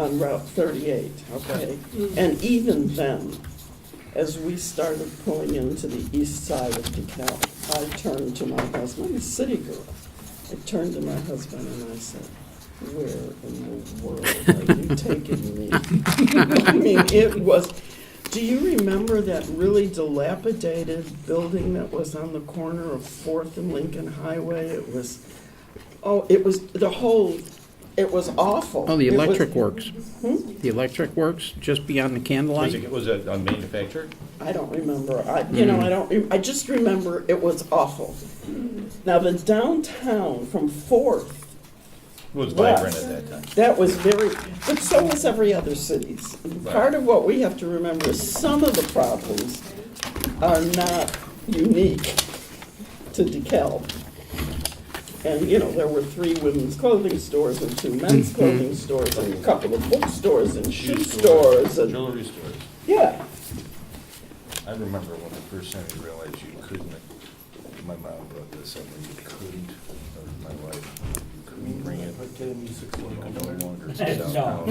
on Route 38, okay? And even then, as we started pulling into the east side of DeKalb, I turned to my husband, I'm a city girl. I turned to my husband and I said, where in the world are you taking me? I mean, it was, do you remember that really dilapidated building that was on the corner of Fourth and Lincoln Highway? It was, oh, it was, the whole, it was awful. Oh, the It was- electric works. The electric works, just beyond the Was candlelight. it, was it uh, manufactured? I don't remember. I, you know, I don't, I just remember it was awful. Now, the downtown from Fourth, Was Well- vibrant at that time. that was very, but so was every other cities. And Part of what we have to remember is some of the problems are not unique to DeKalb. And, you know, there were three women's clothing stores and two men's clothing stores and a couple of bookstores and shoe stores and, Jewelry stores. yeah. I remember when the first time I realized you couldn't, my mom brought this up, and you couldn't, or my wife, you couldn't bring it. You could no longer sell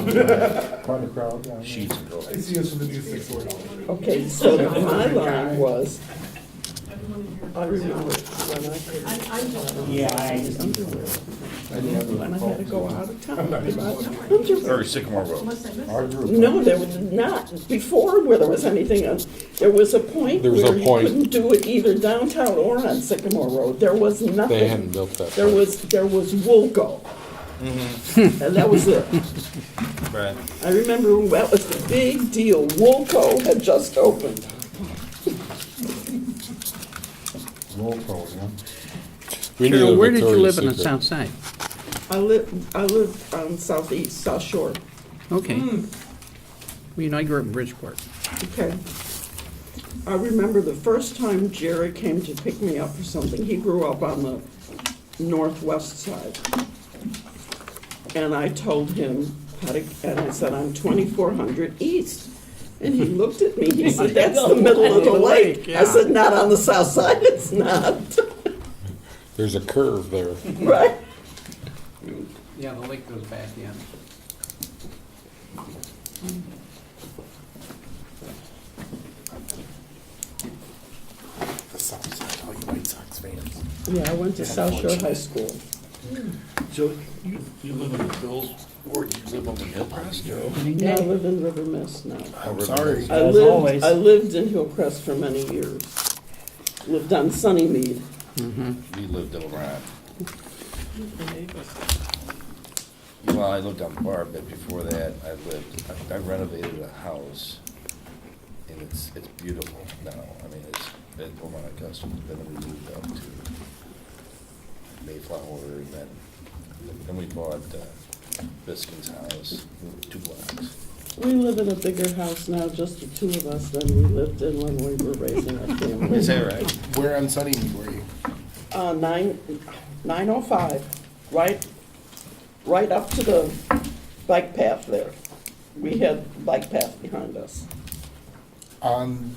Part of the crowd, yeah. sheets and It's pillows. the use of the new six four dollars. Okay, so my line was, I remember when I could, Yeah, I, when I had to go out of town. to buy underwear. Or Sycamore Road. Our group. No, there was not, before where there was anything else, there was a point There was a where you point. couldn't do it either downtown or on Sycamore Road. There was They hadn't nothing. built that. There part. was, there was Woolco. Mm-hmm. And that was it. Right. I remember that was the big deal. Woolco had just opened. Roll call, yeah. We needed Carol, a where did you Victoria's live on the Secret. south side? I live, I live on southeast, South Shore. Okay. Hmm. Well, you know, I grew up in Bridgeport. Okay. I remember the first time Jerry came to pick me up for something. He grew up on the northwest side. And I told him how to, and I said, I'm 2400 east. And he looked at me, he said, that's the middle of the lake. I said, not on the south side, it's not, There's a curve there. right? Yeah, the lake goes back, yeah. Yeah, I went to South Shore High School. So you, you live in the Bills, or you live on the Hillcrest? Now I live in River Mist now. I'm sorry. I As lived, always. I lived in Hillcrest for many years. Lived on Sunnymead. Mm-hmm. We lived over on, well, I lived on Bar, but before that, I lived, I renovated a house. And it's, it's beautiful now. I mean, it's, it, oh my gosh, then we moved up to Mayflower and then, then we bought, uh, Biskin's house, two blocks. We live in a bigger house now, just the two of us, than we lived in when we were raising our Is family. that right? Where on Sunny were you? Uh, nine, nine oh five, right, right up to the bike path there. We had bike path behind us. On,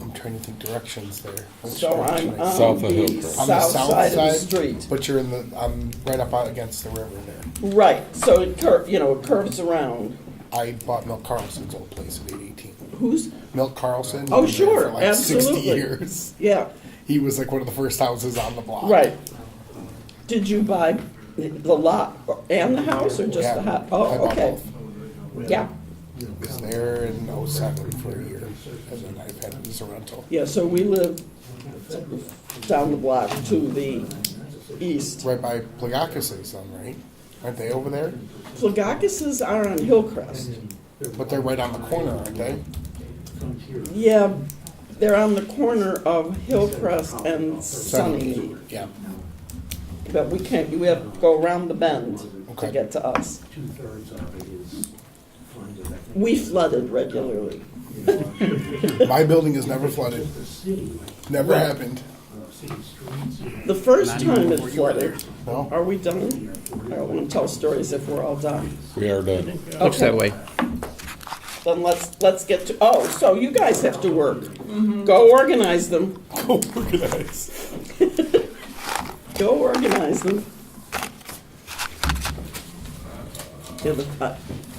I'm trying to think directions there. Which So I'm direction I- on South of the Hillcrest. On the south side of the street. But you're in the, I'm right up out against the river there. Right, so it cur, you know, it curves around. I bought Milk Carlson's old place at eight eighteen. Who's, Milk Carlson? Oh, he lived there for sure, like Sixty absolutely. years. yeah, He was like one of the first houses on the block. right. Did you buy the lot and the house, or just Yeah, the house? I Oh, bought okay. both. Yeah. was there in '07 for a year, and then I've had it as a rental. Yeah, so we live down the block to the east. Right by Plagakis's, then, right? Aren't they over there? Plagakis's are on Hillcrest. But they're right on the corner, aren't they? Yeah, they're on the corner of Hillcrest and Sunny. Yeah. But we can't, we have to go around the bend to Okay. get to us. two-thirds of it is funded. I think We flooded regularly. My building is never flooded. The city, Never happened. uh, city streets, you know, The first time it flooded, No. are we done? I don't want to tell stories if we're all done. We are done. Looks Okay. that way. Then let's, let's get to, oh, so you guys have to work. Go organize them. Mm-hmm. Go organize. Go organize them. Yeah, but, uh,